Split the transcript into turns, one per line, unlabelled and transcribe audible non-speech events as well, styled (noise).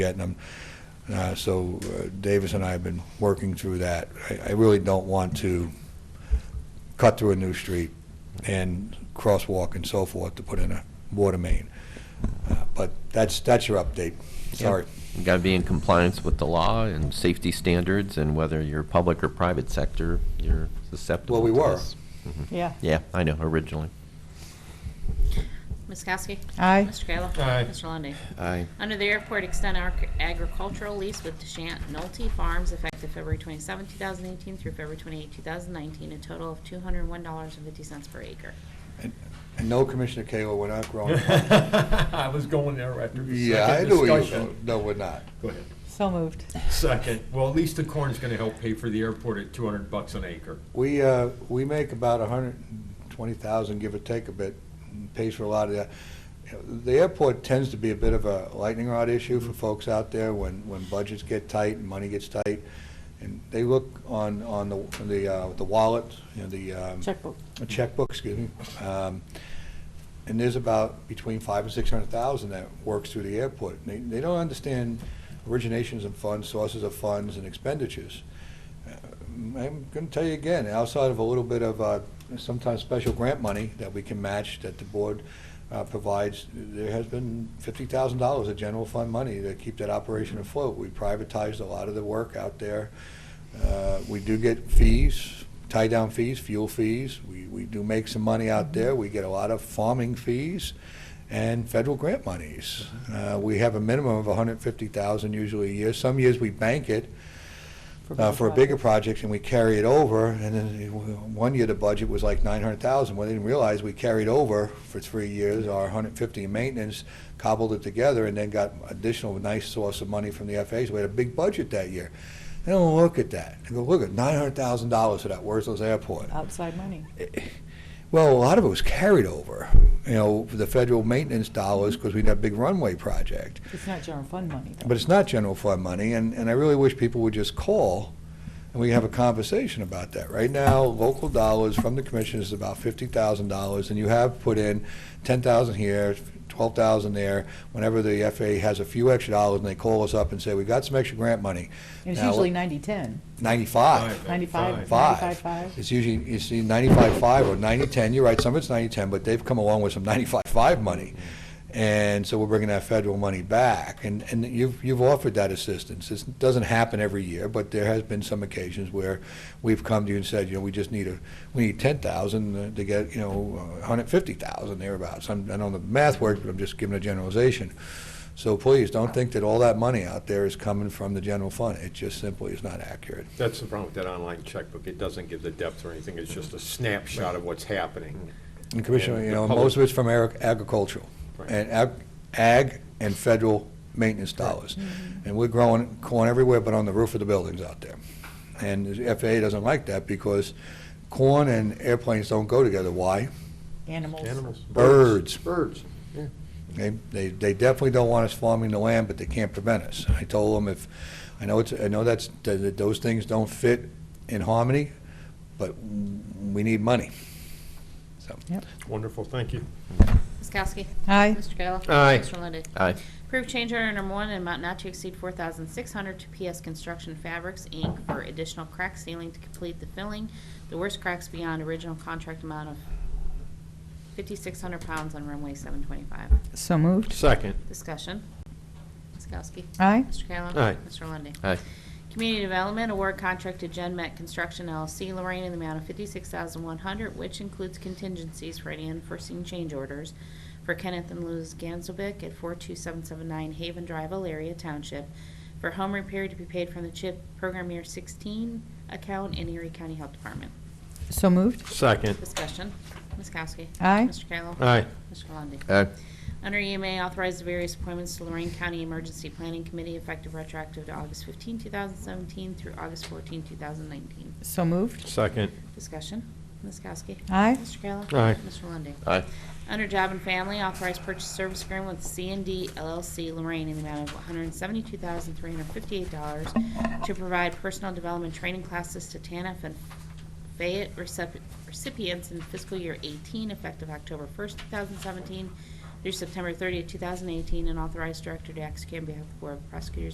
yet, and I'm, uh, so uh, Davis and I have been working through that. I- I really don't want to cut through a new street and crosswalk and so forth to put in a water main. Uh, But that's, that's your update. Sorry.
You got to be in compliance with the law and safety standards, and whether you're public or private sector, you're susceptible.
Well, we
to
were.
this.
Yeah.
Yeah, I know, originally.
Ms. Kowski?
Aye.
Mr. Kayla?
Aye.
Mr. Lundy.
Aye.
Under the airport, extend our agricultural lease with Deshant Nolte Farms effective February 27, 2018 through February 28, 2019, a total of $201.50 per acre.
And and no, Commissioner Kayla, we're not growing.
(laughs) I was going there after the
Yeah, I
second
know you,
discussion.
no, we're not.
Go ahead.
So moved.
Uh,
Second, well, at least the corn's gonna help pay for the airport at two hundred bucks an acre.
We, uh, we make about a hundred and twenty thousand, give or take a bit, and pays for a lot of that. The airport tends to be a bit of a lightning rod issue for folks out there when, when budgets get tight and money gets tight. And they look on, on the, the, uh, the wallet, you know, the, um,
Checkbook.
a checkbook, excuse me. Um, And there's about between five and six hundred thousand that works through the airport. And They, they don't understand originations of funds, sources of funds, and expenditures. Uh, I'm gonna tell you again, outside of a little bit of, uh, sometimes special grant money that we can match, that the board, uh, provides, there has been fifty thousand dollars of general fund money to keep that operation afloat. We privatized a lot of the work out there. Uh, We do get fees, tie-down fees, fuel fees. We, we do make some money out there. We get a lot of farming fees and federal grant monies. Uh, We have a minimum of 150,000 usually a year. Some years we bank it uh, for a bigger project and we carry it over. And then uh, one year the budget was like 900,000. Well, they didn't realize we carried over for three years our 150 in maintenance, cobbled it together, and then got additional nice source of money from the FAs. We had a big budget that year. They don't look at that. They go, look at nine hundred thousand dollars for that worthless airport.
Outside money.
Well, a lot of it was carried over, you know, for the federal maintenance dollars because we had a big runway project.
It's not general fund money, though.
But it's not general fund money, and, and I really wish people would just call and we have a conversation about that. Right now, local dollars from the commission is about fifty thousand dollars, and you have put in ten thousand here, twelve thousand there. Whenever the FAA has a few extra dollars and they call us up and say, we got some extra grant money,
And It's
Now,
usually 90-10,
ninety-five.
Five.
95,
Five.
95-5.
It's usually, you see 95.5 or 90.10, you're right, some of it's 90.10, but they've come along with some 95.5 money. And so we're bringing that federal money back, and, and you've, you've offered that assistance. This doesn't happen every year, but there has been some occasions where we've come to you and said, you know, we just need a, we need 10,000 to get, you know, 150,000 thereabouts. I'm, I don't know the math works, but I'm just giving a generalization. So please, don't think that all that money out there is coming from the general fund. It just simply is not accurate.
That's the problem with that online checkbook. It doesn't give the depth or anything. It's just a snapshot of what's happening.
And Commissioner,
And
you
the
know,
public-
most of it's from ag- agricultural,
Right.
and ag- ag and federal maintenance dollars. And we're growing corn everywhere but on the roof of the buildings out there. And the FAA doesn't like that because corn and airplanes don't go together. Why?
Animals.
Animals.
Birds.
Birds.
They, they they definitely don't want us farming the land, but they can't prevent us. I told them if, I know it's, I know that's, that that those things don't fit in harmony, but we need money. So,
Wonderful, thank you.
Ms. Kowski?
Aye.
Mr. Kayla?
Aye.
Mr. Lundey.
Aye.
Approve change order number one in an amount not to exceed 4600 to PS Construction Fabrics, Inc. for additional crack sealing to complete the filling. The worst cracks beyond original contract amount of 5,600 pounds on runway 725.
So moved.
Second.
Discussion. Ms. Kowski?
Aye.
Mr. Kayla?
Aye.
Mr. Lundey?
Aye.
Community Development Award Contract to Gen Met Construction LLC Lorraine in the amount of 56100 which includes contingencies for any unforeseen change orders for Kenneth and Luz Ganzelbeck at 42779 Haven Drive, Elaria Township, for home repair to be paid from the CHIP Program Year 16 account in Erie County Health Department.
So moved.
Second.
Discussion. Ms. Kowski?
Aye.
Mr. Kayla?
Aye.
Mr. Lundey?
Aye.
Under EMA, authorize the various appointments to Lorraine County Emergency Planning Committee effective retroactive to August 15, 2017 through August 14, 2019.
So moved.
Second.
Discussion. Ms. Kowski.
Aye.
Mr. Kayla.
Aye.
Mr. Lundey.
Aye.
Under Job and Family, authorize purchase service agreement with c and D LLC Lorraine in the amount of $172,358 to provide personal development training classes to TANF and Fayette recep- recipients in fiscal year 18 effective October 1st, 2017 through September 30th, 2018, and authorize director to execute on behalf of the Board of Prosecutors